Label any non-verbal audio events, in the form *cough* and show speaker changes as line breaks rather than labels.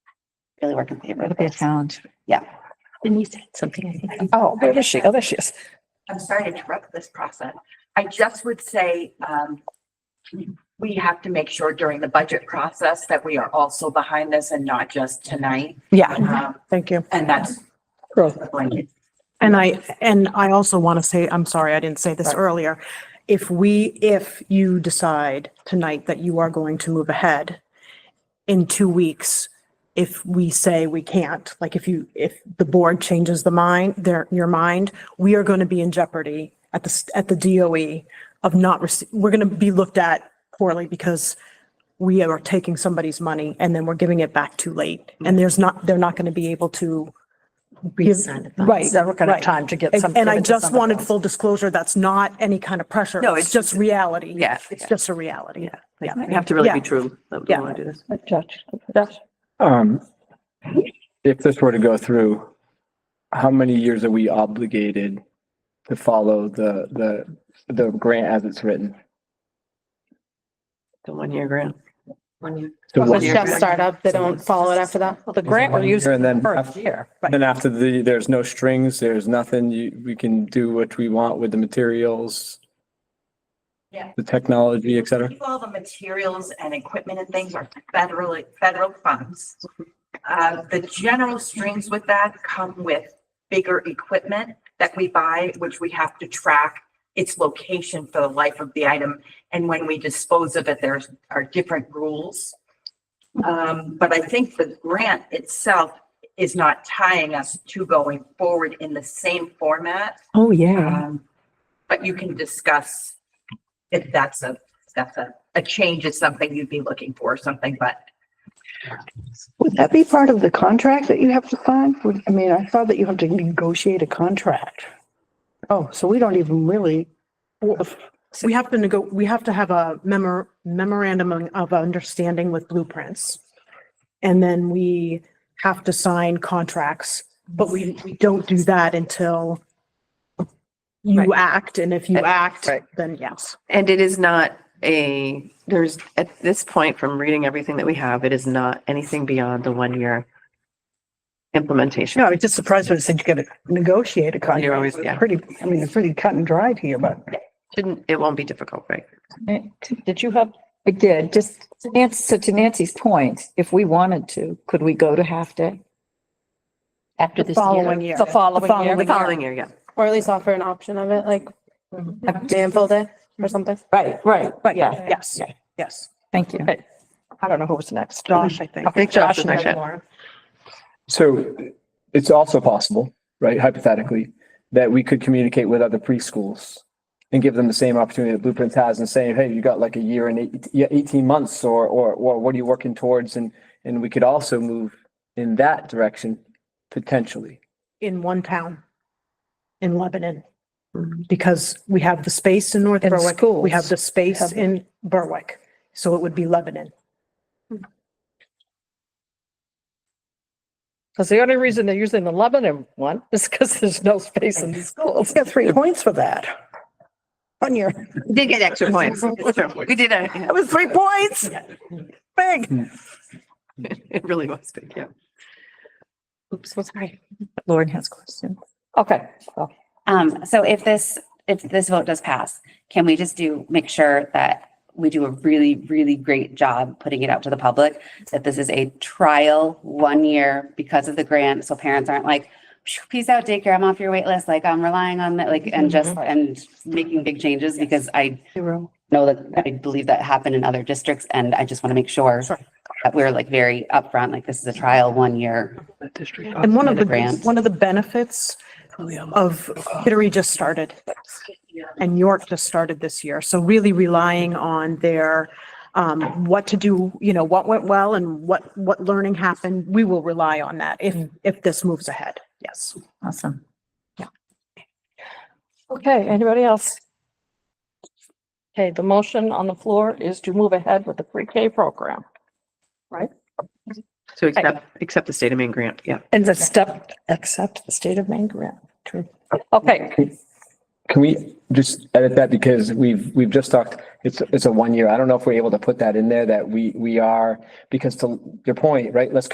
really work in favor
It'll
of
be a
this.
challenge.
Yeah.
Denise had something, I think.
Oh, there is she? Oh, there she is.
I'm sorry to interrupt this process. I just would say, um, we have to make sure during the budget process that we are also behind this and not just tonight.
Yeah,
Um,
thank you.
and that's
Growth.
blanket.
And I, and I also want to say, I'm sorry, I didn't say this earlier. If we, if you decide tonight that you are going to move ahead in two weeks, if we say we can't, like if you, if the board changes the mind, their, your mind, we are going to be in jeopardy at the, s- at the DOE of not, rece- we're going to be looked at poorly because we are taking somebody's money and then we're giving it back too late. And there's not, they're not going to be able to.
Reassign the funds.
Right. Never gonna
right.
have time to get some. give
And I
it to
just
somebody
wanted
else.
full disclosure, that's not any kind of pressure.
No,
It's
it's-
just reality.
Yeah.
It's just a reality.
Like, You have to really
Yeah.
be true that we
Yeah.
want to do this.
Judge, Judge.
Um, if this were to go through, how many years are we obligated to follow the, the, the grant as it's written?
The one year grant.
So
Well,
one
Let's
year,
just start up. They don't follow it after that.
The grant we're
One year
using
and then
for a
after-
year.
then after the, there's no strings, there's nothing, you, we can do what we want with the materials.
Yeah.
The technology, et cetera.
All the materials and equipment and things are federally, federal funds. Uh, the general strings with that come with bigger equipment that we buy, which we have to track its location for the life of the item. And when we dispose of it, there's, are different rules. Um, but I think the grant itself is not tying us to going forward in the same format.
Oh, yeah.
Um, But you can discuss if that's a, that's a, a change is something you'd be looking for or something, but
Would that be part of the contract that you have to sign? Would- I mean, I thought that you have to negotiate a contract. Oh, so we don't even really,
We have to nego, we have to have a memor, memorandum of understanding with blueprints. And then we have to sign contracts, but we, we don't do that until you act. And if you act,
Right.
then yes.
And it is not a, there's, at this point from reading everything that we have, it is not anything beyond the one year implementation.
no, I was just surprised when it said you gotta negotiate a contract.
You're always- yeah.
Pretty, I mean, it's pretty cut and dried here, but.
Shouldn't, it won't be difficult, right?
Did you have,
I did, just to Nancy, so to Nancy's point, if we wanted to, could we go to half day?
After
the
this
following
year,
year?
The following year.
The following year, yeah.
Or at least offer an option of it, like Danville Day or something.
right, right,
Right,
yeah.
yes, yes.
Thank you.
I don't know who was next. Josh, I think.
I think Josh is
had
next, yeah.
more.
So it's also possible, right, hypothetically, that we could communicate with other preschools and give them the same opportunity that Blueprints has and saying, hey, you got like a year and eight, yeah, eighteen months or, or, or what are you working towards? And, and we could also move in that direction potentially.
in one town in Lebanon.
Mm.
Because we have the space in North Berwick, we have the space in Berwick, so it would be Lebanon.
Because the only reason they're using the Lebanon one is because there's no space in the schools.
Got Oh, three points for that. On your,
Did get extra points. We did, uh, *laughs* yeah.
that was three points. Big.
it really was big, yeah.
Oops, well, sorry. Lauren has questions.
Okay, well,
Um, so if this, if this vote does pass, can we just do, make sure that we do a really, really great job putting it out to the public? That this is a trial, one year because of the grant, so parents aren't like, "Phew, peace out daycare, I'm off your wait list. like I'm relying on that, like, and just, and making big changes because I know that, I believe that happened in other districts and I just want to make sure
Sure.
that we're like very upfront, like this is a trial, one year.
And one of the,
Grant.
one of the benefits of Kittery just started and York just started this year. So really relying on their, um, what to do, you know, what went well and what, what learning happened. We will rely on that if, if this moves ahead. Yes.
Awesome.
okay, anybody else? Okay, the motion on the floor is to move ahead with the pre-K program.
So accept, accept the state of Maine grant, yeah.
And the step, accept the state of Maine grant. Okay,
Can we just edit that because we've, we've just talked, it's, it's a one year. I don't know if we're able to put that in there that we, we are, because to your point, right, let's